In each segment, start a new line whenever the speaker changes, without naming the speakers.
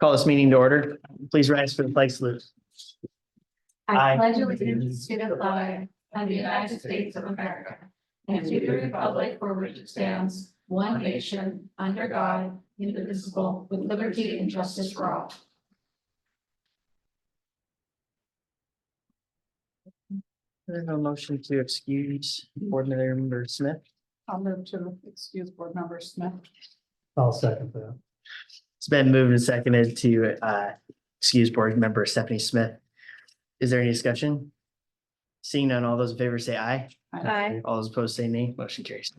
Call this meeting to order. Please rise for the flag salute.
I
I
pledge
pledge
allegiance to the flag of the United States of America and to the republic for which it stands, one nation, under God, indivisible, with liberty and justice for all.
There's no motion to excuse Board Member Smith.
I'll move to excuse board member Smith.
I'll second that.
It's been moved and seconded to uh, excuse Board Member Stephanie Smith. Is there any discussion? Seeing none, all those in favor say aye.
Aye.
All those opposed say nay. Motion carries.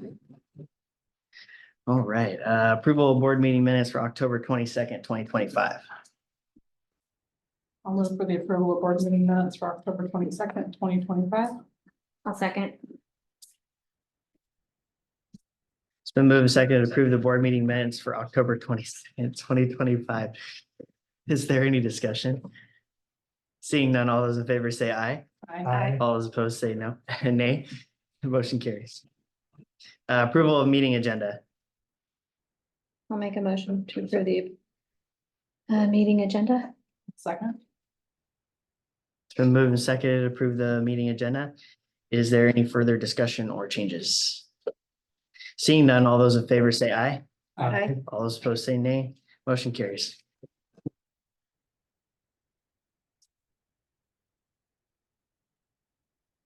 All right, uh, approval of board meeting minutes for October twenty-second, twenty twenty-five.
I'll move for the approval of board meeting minutes for October twenty-second, twenty twenty-five.
I'll second.
It's been moved and seconded to approve the board meeting minutes for October twenty-second, twenty twenty-five. Is there any discussion? Seeing none, all those in favor say aye.
Aye.
All those opposed say no, nay. The Motion carries. Uh, Approval of meeting agenda.
I'll make a motion to approve the uh, meeting agenda.
Second,
It's been moved and seconded to approve the meeting agenda. Is there any further discussion or changes? Seeing none, all those in favor say aye.
Aye.
All those opposed say nay. Motion carries.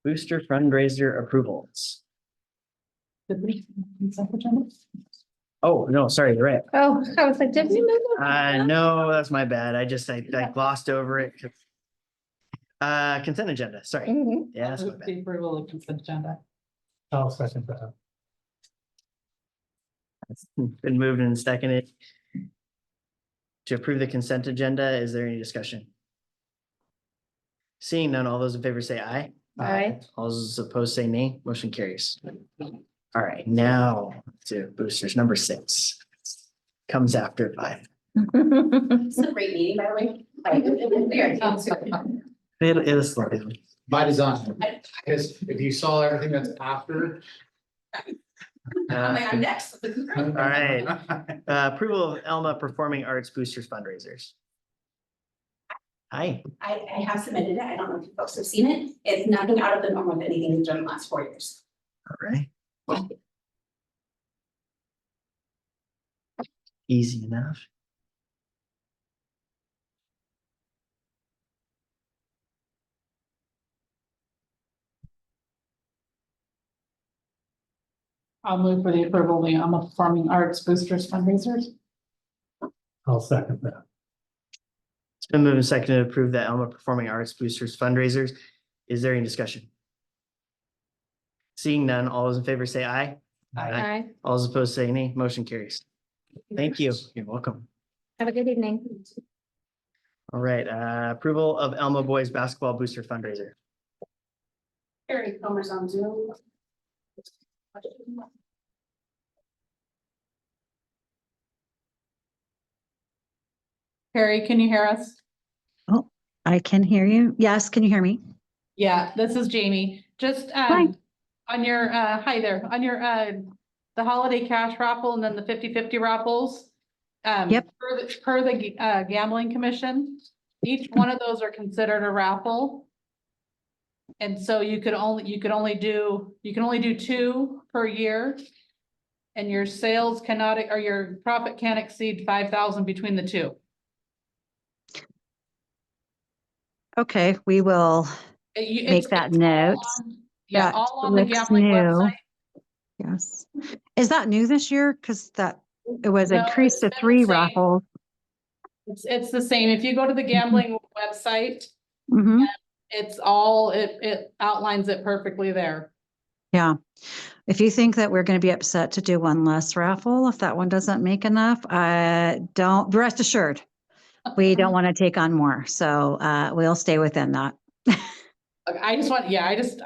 Booster fundraiser approvals.
did we? consent agenda?
Oh, no, sorry, you're right.
Oh, I was like, did we move? it?
Uh, no, that's my bad. I just, I I glossed over it. Uh, consent agenda, sorry.
Mhm.
Yeah, that's my
Move
bad.
The approval of consent agenda.
I'll second that.
Hmm, Been moved and seconded. To approve the consent agenda, is there any discussion? Seeing none, all those in favor say aye.
Aye.
All those opposed say nay. Motion carries. All right, now to boosters, number six. Comes after five.
This is a great meeting, by the way. Like, we are team two.
It is. lovely.
By design, because if you saw everything that's after.
I'm
Uh,
like, I'm next.
All
right. uh, Approval of Elma Performing Arts Boosters fundraisers. Hi,
I, I have submitted it. I don't know if you folks have seen it. It's nothing out of the norm with anything we've done in the last four years.
all right. Easy enough.
I'll move for the approval of the Alma Performing Arts Boosters fundraisers.
I'll second that.
It's been moved and seconded to approve the Elma Performing Arts Boosters fundraisers. Is there any discussion? Seeing none, all those in favor say aye. Aye.
Aye.
All those opposed say nay. Motion carries. Thank you. You're welcome.
Have a good evening.
All right, uh, approval of Elma Boys Basketball Booster fundraiser.
Eric Comer's on Zoom.
Harry, can you hear us?
I can hear you. Yes, can you hear me?
Yeah, this is Jamie. Just um, on your, uh, hi there, on your, uh, the holiday cash raffle and then the 50-50 raffles. um,
Yep.
Per the, per the uh, gambling commission, each one of those are considered a raffle. And so you could only, you could only do, you can only do two per year. And your sales cannot, or your profit can't exceed five thousand between the two.
Okay, we will
It- you- it's-
make that
it's
note.
all on- Yeah,
That
all on the
looks
gambling
new.
website.
Yes. Is that new this year? Because that, it was
No, it's
increased to
been the
three
same.
raffles.
It's, it's the same. If you go to the gambling website,
Mhm.
it's all, it, it outlines it perfectly there.
Yeah. If you think that we're going to be upset to do one less raffle, if that one doesn't make enough, uh, don't, rest assured. We
Mm-hmm.
don't want to take on more. So, uh, we'll stay within that.
Like, I just want, yeah, I just,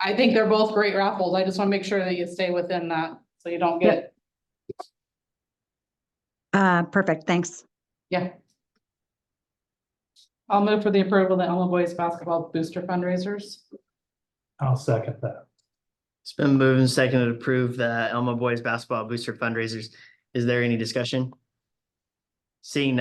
I think they're both great raffles. I just want to make sure that you stay within that, so you don't get,
Uh, perfect. Thanks.
yeah. I'll move for the approval of the Elma Boys Basketball Booster fundraisers.
I'll second that.
It's been moved and seconded to approve the Elma Boys Basketball Booster fundraisers. Is there any discussion? Seeing none,